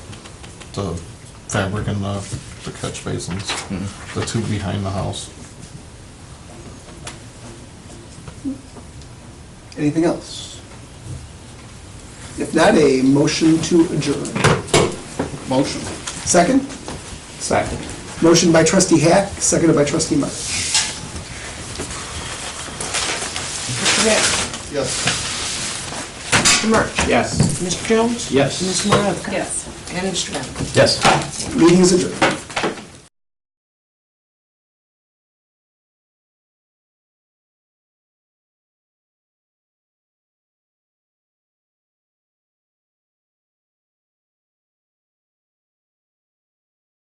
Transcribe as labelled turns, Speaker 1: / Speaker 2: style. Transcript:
Speaker 1: the fabric and the, the catch basins, the two behind the house.
Speaker 2: Anything else? If not, a motion to adjourn.
Speaker 3: Motion.
Speaker 2: Second?
Speaker 3: Second.
Speaker 2: Motion by trustee Hack, seconded by trustee March.
Speaker 4: Mr. Hack.
Speaker 3: Yes.
Speaker 4: Mr. March.
Speaker 3: Yes.
Speaker 4: Mr. Jones.
Speaker 3: Yes.
Speaker 4: Ms. Maravka.
Speaker 5: Yes.
Speaker 4: And Mr. Bennett.
Speaker 3: Yes.
Speaker 2: Meeting is adjourned.